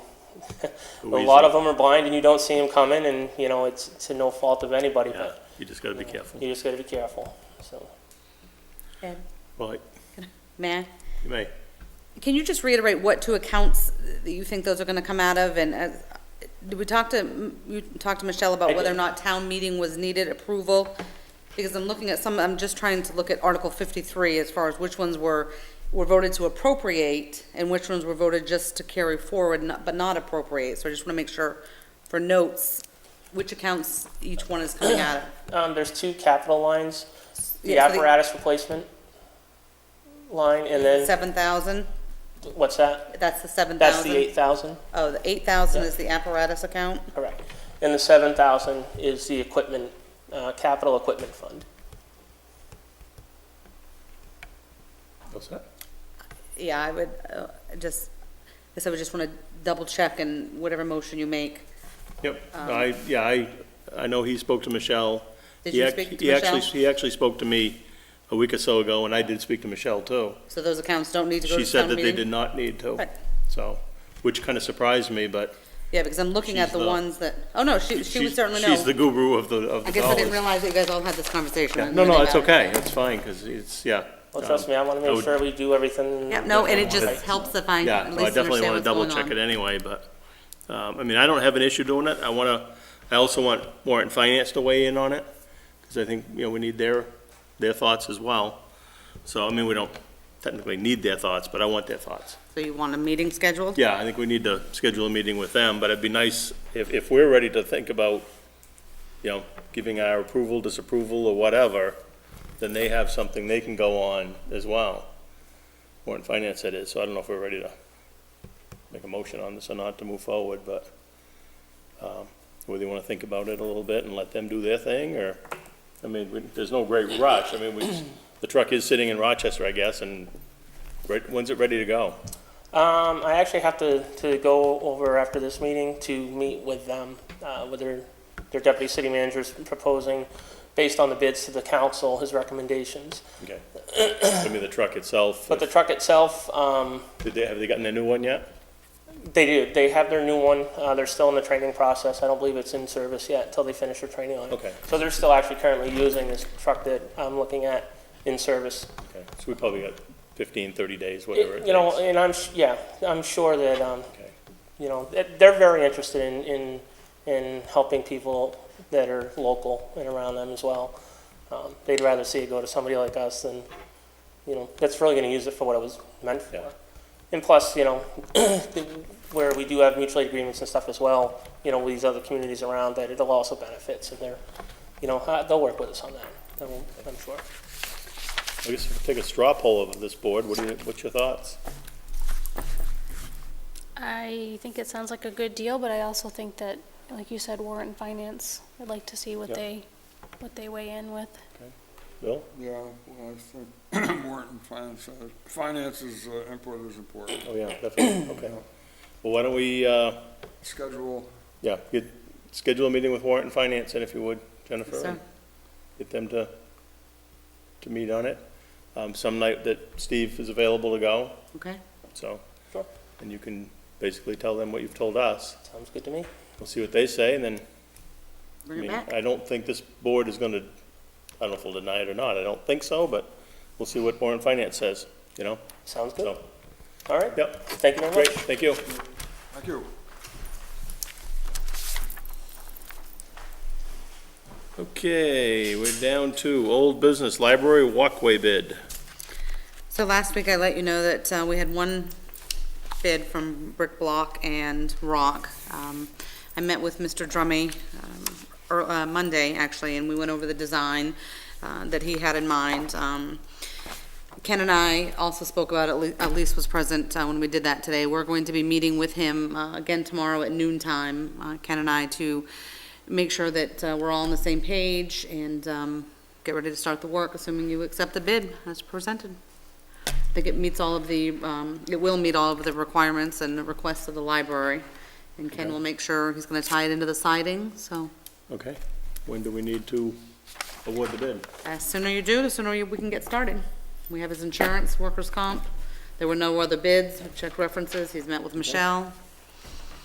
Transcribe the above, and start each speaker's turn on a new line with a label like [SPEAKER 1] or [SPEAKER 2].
[SPEAKER 1] A
[SPEAKER 2] A
[SPEAKER 1] weasel.
[SPEAKER 2] lot of them are blind and you don't see them coming and, you know, it's, it's no fault of anybody,
[SPEAKER 1] Yeah,
[SPEAKER 2] but
[SPEAKER 1] you just gotta be careful.
[SPEAKER 2] you just gotta be careful, so.
[SPEAKER 3] Ed,
[SPEAKER 1] Right,
[SPEAKER 3] Matt,
[SPEAKER 1] you may.
[SPEAKER 3] can you just reiterate what two accounts that you think those are gonna come out of, and, uh, did we talk to, you talked to Michelle
[SPEAKER 2] I
[SPEAKER 3] about
[SPEAKER 2] did.
[SPEAKER 3] whether or not town meeting was needed approval? Because I'm looking at some, I'm just trying to look at Article fifty-three as far as which ones were, were voted to appropriate, and which ones were voted just to carry forward, not- but not appropriate, so I just wanna make sure for notes, which accounts each one is coming out of.
[SPEAKER 2] Um, there's two capital lines, the
[SPEAKER 3] Yeah, so
[SPEAKER 2] apparatus replacement line and then,
[SPEAKER 3] Seven thousand,
[SPEAKER 2] what's that?
[SPEAKER 3] that's the seven
[SPEAKER 2] That's
[SPEAKER 3] thousand?
[SPEAKER 2] the eight thousand,
[SPEAKER 3] Oh, the eight thousand
[SPEAKER 2] Yeah.
[SPEAKER 3] is the apparatus account?
[SPEAKER 2] correct. And the seven thousand is the equipment, uh, capital equipment fund.
[SPEAKER 1] What's that?
[SPEAKER 3] Yeah, I would, uh, just, guess I would just want to double check in whatever motion you make.
[SPEAKER 1] Yep,
[SPEAKER 3] Um,
[SPEAKER 1] I, yeah, I, I know he spoke to Michelle.
[SPEAKER 3] Did
[SPEAKER 1] He
[SPEAKER 3] you
[SPEAKER 1] ac-
[SPEAKER 3] speak to
[SPEAKER 1] he actually-
[SPEAKER 3] Michelle?
[SPEAKER 1] He actually spoke to me a week or so ago, and I did speak to Michelle too.
[SPEAKER 3] So those accounts don't need to go
[SPEAKER 1] She
[SPEAKER 3] to
[SPEAKER 1] said
[SPEAKER 3] town
[SPEAKER 1] that they
[SPEAKER 3] meeting?
[SPEAKER 1] did not need to,
[SPEAKER 3] Right.
[SPEAKER 1] so, which kind of surprised me, but.
[SPEAKER 3] Yeah, because I'm looking
[SPEAKER 1] She's
[SPEAKER 3] at the
[SPEAKER 1] the-
[SPEAKER 3] ones that, oh, no, she, she would
[SPEAKER 1] she's-
[SPEAKER 3] certainly
[SPEAKER 1] She's the
[SPEAKER 3] know.
[SPEAKER 1] guru of the, of
[SPEAKER 3] I
[SPEAKER 1] the
[SPEAKER 3] guess I didn't
[SPEAKER 1] dollars.
[SPEAKER 3] realize that you guys all had this conversation.
[SPEAKER 1] Yeah,
[SPEAKER 3] I'm
[SPEAKER 1] No, no,
[SPEAKER 3] really
[SPEAKER 1] it's
[SPEAKER 3] bad.
[SPEAKER 1] okay, it's fine, because it's, yeah.
[SPEAKER 2] Well, trust
[SPEAKER 1] um,
[SPEAKER 2] me, I wanna
[SPEAKER 1] I
[SPEAKER 2] make
[SPEAKER 1] would-
[SPEAKER 2] sure we do everything.
[SPEAKER 3] Yeah, no, and it
[SPEAKER 2] right.
[SPEAKER 3] just helps if I
[SPEAKER 1] Yeah,
[SPEAKER 3] at
[SPEAKER 1] so I
[SPEAKER 3] least
[SPEAKER 1] definitely
[SPEAKER 3] understand
[SPEAKER 1] want to
[SPEAKER 3] what's
[SPEAKER 1] double
[SPEAKER 3] going
[SPEAKER 1] check it
[SPEAKER 3] on.
[SPEAKER 1] anyway, but, um, I mean, I don't have an issue doing it. I want to, I also want warrant and finance to weigh in on it, because I think, you know, we need their, their thoughts as well. So, I mean, we don't technically need their thoughts, but I want their thoughts.
[SPEAKER 3] So you want a meeting scheduled?
[SPEAKER 1] Yeah, I think we need to schedule a meeting with them, but it'd be nice if, if we're ready to think about, you know, giving our approval, disapproval, or whatever, then they have something they can go on as well. Warrant Finance it is, so I don't know if we're ready to make a motion on this or not to move forward, but, um, whether you wanna think about it a little bit and let them do their thing, or, I mean, we- there's no great rush. I mean, we, the truck is sitting in Rochester, I guess, and right- when's it ready to go?
[SPEAKER 2] Um, I actually have to, to go over after this meeting to meet with them, uh, with their, their deputy city manager's proposing, based on the bids to the council, his recommendations.
[SPEAKER 1] Okay. I mean, the truck itself,
[SPEAKER 2] But the truck itself, um,
[SPEAKER 1] did they, have they gotten a new one yet?
[SPEAKER 2] they do, they have their new one, uh, they're still in the training process, I don't believe it's in service yet until they finish their training on it.
[SPEAKER 1] Okay.
[SPEAKER 2] So they're still actually currently using this truck that I'm looking at in service.
[SPEAKER 1] Okay, so we probably got 15, 30 days, whatever it
[SPEAKER 2] You know,
[SPEAKER 1] takes.
[SPEAKER 2] and I'm, s- yeah, I'm sure that, um,
[SPEAKER 1] Okay.
[SPEAKER 2] you know, that- they're very interested in, in, in helping people that are local and around them as well. Um, They'd rather see it go to somebody like us than, you know, that's really gonna use it for what it was meant
[SPEAKER 1] Yeah.
[SPEAKER 2] for. And plus, you know, the- where we do have mutual aid agreements and stuff as well, you know, with these other communities around, that it'll also benefit, so they're, you know, uh, they'll work with us on that, They'll- I'm sure.
[SPEAKER 1] I guess if we take a straw poll of this board, what do you, what's your thoughts?
[SPEAKER 4] I think it sounds like a good deal, but I also think that, like you said, warrant and finance, I'd like to see what
[SPEAKER 1] Yep.
[SPEAKER 4] they, what they weigh in with.
[SPEAKER 1] Bill?
[SPEAKER 5] Yeah, well, I think warrant and finance, uh, finances uh, input is important.
[SPEAKER 1] Oh, yeah, definitely, okay. Well, why don't we, uh,
[SPEAKER 5] Schedule,
[SPEAKER 1] yeah, get, schedule a meeting with Warrant and Finance, and if you would, Jennifer,
[SPEAKER 3] So,
[SPEAKER 1] and get them to, to meet on it. Um, Some night that Steve is available to go,
[SPEAKER 3] okay.
[SPEAKER 1] so.
[SPEAKER 2] Sure.
[SPEAKER 1] And you can basically tell them what you've told us.
[SPEAKER 2] Sounds good to me.
[SPEAKER 1] We'll see what they say, and then I
[SPEAKER 3] Bring it
[SPEAKER 1] mean,
[SPEAKER 3] back.
[SPEAKER 1] I don't think this board is gonna, I don't know if they'll deny it or not, I don't think so, but we'll see what Warren Finance says, you know,
[SPEAKER 2] Sounds good.
[SPEAKER 1] so,
[SPEAKER 2] All right,
[SPEAKER 1] yep,
[SPEAKER 2] thank you very much.
[SPEAKER 1] great, thank you.
[SPEAKER 5] thank you.
[SPEAKER 1] Okay, we're down to old business, library walkway bid.
[SPEAKER 3] So last week I let you know that uh, we had one bid from Brick Block and Rock. Um, I met with Mr. Drummy um, ear- uh, Monday, actually, and we went over the design uh, that he had in mind. Um, Ken and I also spoke about, it. Le- uh, Elise was present uh, when we did that today. We're going to be meeting with him uh, again tomorrow at noon time, uh, Ken and I, to make sure that uh, we're all on the same page and um, get ready to start the work, assuming you accept the bid as presented. I think it meets all of the, um, it will meet all of the requirements and the requests of the library. And Ken will make sure he's gonna tie it into the siding, so
[SPEAKER 1] Okay, when do we need to award the bid?
[SPEAKER 3] the sooner you do, the sooner you- we can get started. We have his insurance, workers' comp. There were no other bids. I've checked references. He's met with Michelle.